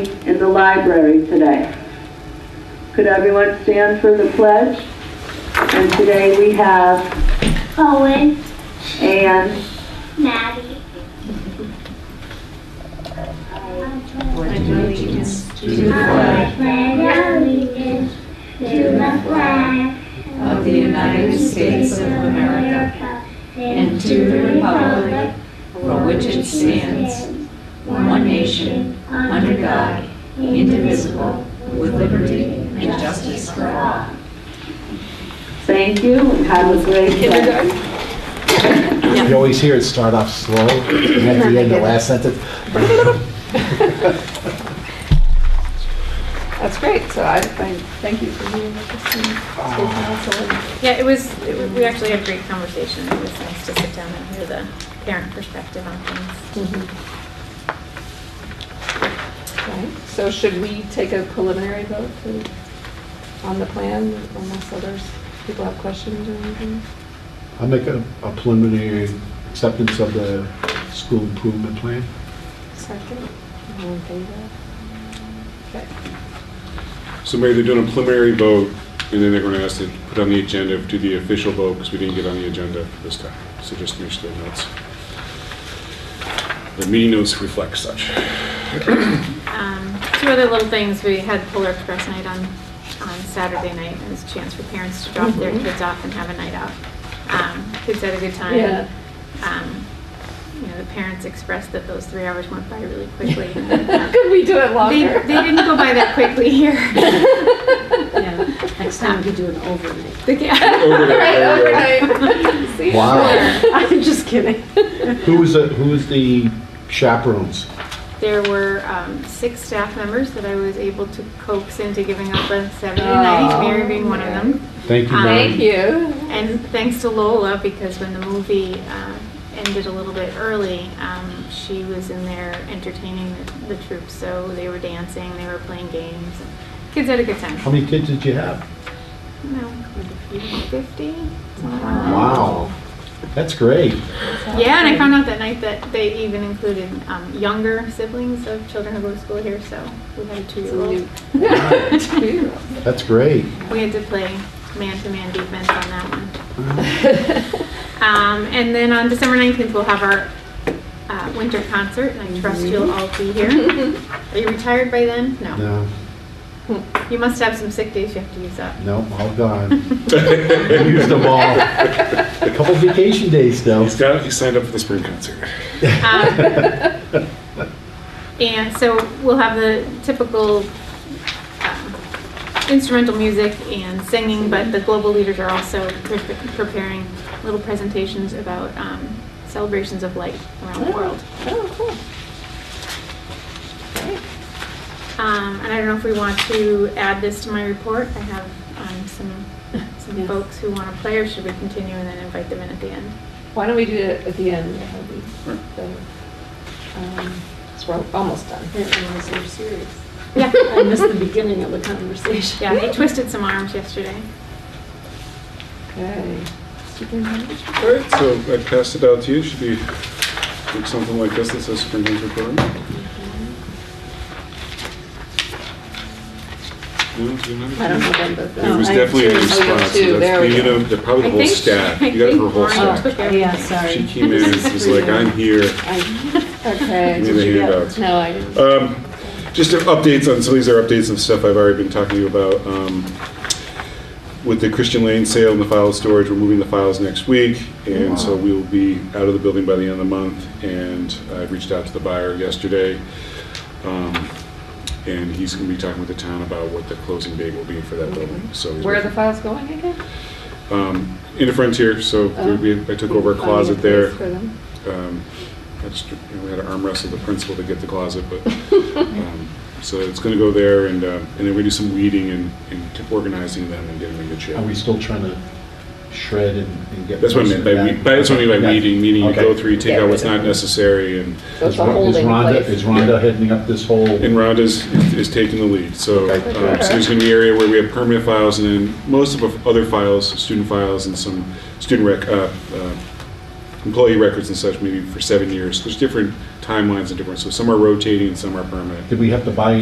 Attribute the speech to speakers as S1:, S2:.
S1: the library today. Could everyone stand for the pledge? And today we have
S2: Owen,
S1: Anne,
S2: Maddie.
S3: to the flag
S2: Flag allegiance to the flag
S3: of the United States of America and to the republic for which it stands, one nation, under God, indivisible, with liberty and justice for all.
S1: thank you, and have a great day.
S4: You always hear it start off slow, and at the end, the last sentence,
S5: That's great, so I, I thank you for being with us and school council. and-
S6: Yeah, it was, it was- we actually had a great conversation. It was nice to sit down and hear the parent perspective on things.
S5: Right. So should we take a preliminary vote to- on the plan unless others, people have questions or anything?
S4: I'll make a a preliminary acceptance of the school improvement plan.
S5: Second, all in favor? Okay.
S7: So Mary, they're doing a preliminary vote, and then they're going to ask to put on the agenda, do the official vote, because we didn't get on the agenda this time. So just make sure the notes, the meeting notes reflect such.
S6: Um, Two other little things, we had Polar Express night on, on Saturday night. It was a chance for parents to drop their kids off and have a night out. Um, Kids had a good time.
S5: Yeah.
S6: Um, You know, the parents expressed that those three hours went by really quickly.
S5: Could we do it
S6: They,
S5: longer?
S6: they didn't go by that quickly here.
S8: Yeah, next time we do an overnight.
S6: The ca-
S5: Right,
S7: Overnight, overnight.
S5: overnight. See?
S4: Wow.
S8: I'm just kidding.
S4: Who was the, who was the chaperones?
S6: There were um, six staff members that I was able to coax into giving up on Saturday
S5: Oh,
S6: night, Mary being one of them.
S4: Thank you,
S6: Um,
S5: Thank
S4: Mary.
S5: you.
S6: And thanks to Lola, because when the movie uh, ended a little bit early, um, she was in there entertaining the, the troops. So they were dancing, they were playing games. and Kids had a good time.
S4: How many kids did you have?
S6: No, 50?
S4: Wow, that's great.
S6: Yeah, and I found out that night that they even included um, younger siblings of children who go to school here, so we had a two-year-old.
S4: That's great.
S6: We had to play man-to-man defense on that one. Um, and then on December 19th, we'll have our uh, winter concert, and I trust you'll all be here. Are you retired by then? No.
S4: No,
S6: You must have some sick days you have to use up.
S4: no, all gone. Used them all. A couple vacation days though.
S7: He's got, he signed up for the spring concert.
S6: Um, And so we'll have the typical um, instrumental music and singing, but the global leaders are also pre- preparing little presentations about um, celebrations of light around the world.
S5: Oh, cool. Great.
S6: Um, and I don't know if we want to add this to my report. I have, um, some, some
S5: Yes.
S6: folks who want to play, or should we continue and then invite them in at the end?
S5: Why don't we do it at the end? That'll be better. Um, So we're almost done.
S8: are serious.
S6: Yeah,
S8: I missed the beginning of the conversation.
S6: yeah, they twisted some arms yesterday.
S5: Okay. Superintendent?
S7: All right, so I passed it out to you, It should be like something like this that says spring concert program. No, do you remember?
S5: Oh, I don't know them, but.
S7: It was definitely a response.
S5: Oh, you
S7: so
S5: too,
S7: that's-
S5: there we
S7: you
S5: go.
S7: know, they're probably
S6: I
S7: the whole
S6: think she-
S7: staff.
S6: I
S7: You got it
S6: think
S7: for a whole
S6: Lauren
S7: staff.
S6: took
S8: Yeah,
S6: everything.
S7: She
S8: sorry.
S7: came in and was like, I'm here.
S5: I- Okay.
S7: Give
S5: did
S7: me the
S5: you get-
S7: handouts.
S5: No, I didn't.
S7: Um, Just updates on, some of these are updates of stuff I've already been talking to you about. Um, With the Christian Lane sale and the file storage, we're moving the files next week, and so we will be out of the building by the end of the month, and I reached out to the buyer yesterday. um, And he's gonna be talking with the town about what the closing date will be for that building, so. he's
S5: Where are
S7: looking-
S5: the files going again?
S7: um, In the Frontier, so
S5: Oh.
S7: we- I took over a
S5: Finding
S7: closet
S5: place
S7: there.
S5: for them.
S7: Um, I just- you know, We had to arm wrestle the principal to get the closet, but, um, so it's going to go there, and uh, and then we do some weeding and and organizing them and getting them in good shape.
S4: Are we still trying to shred and and get?
S7: That's what I meant by weed, that's what I mean by
S4: Yeah.
S7: weeding, meaning you
S4: Okay.
S7: go through, you take
S5: Get
S7: out
S5: rid
S7: what's
S5: of
S7: not
S5: them.
S7: necessary, and
S5: So
S4: Is
S5: it's a
S4: Ron- is
S5: holding
S4: Rhonda,
S5: place.
S4: is Rhonda heading up this whole?
S7: and Rhonda's is taking the lead. So
S4: Okay.
S7: um, so there's going to be an area where we have permanent files, and then most of our other files, student files and some student rec, uh, uh, employee records and such, maybe for seven years. There's different timelines and different, so some are rotating and some are permanent.
S4: Did we have to buy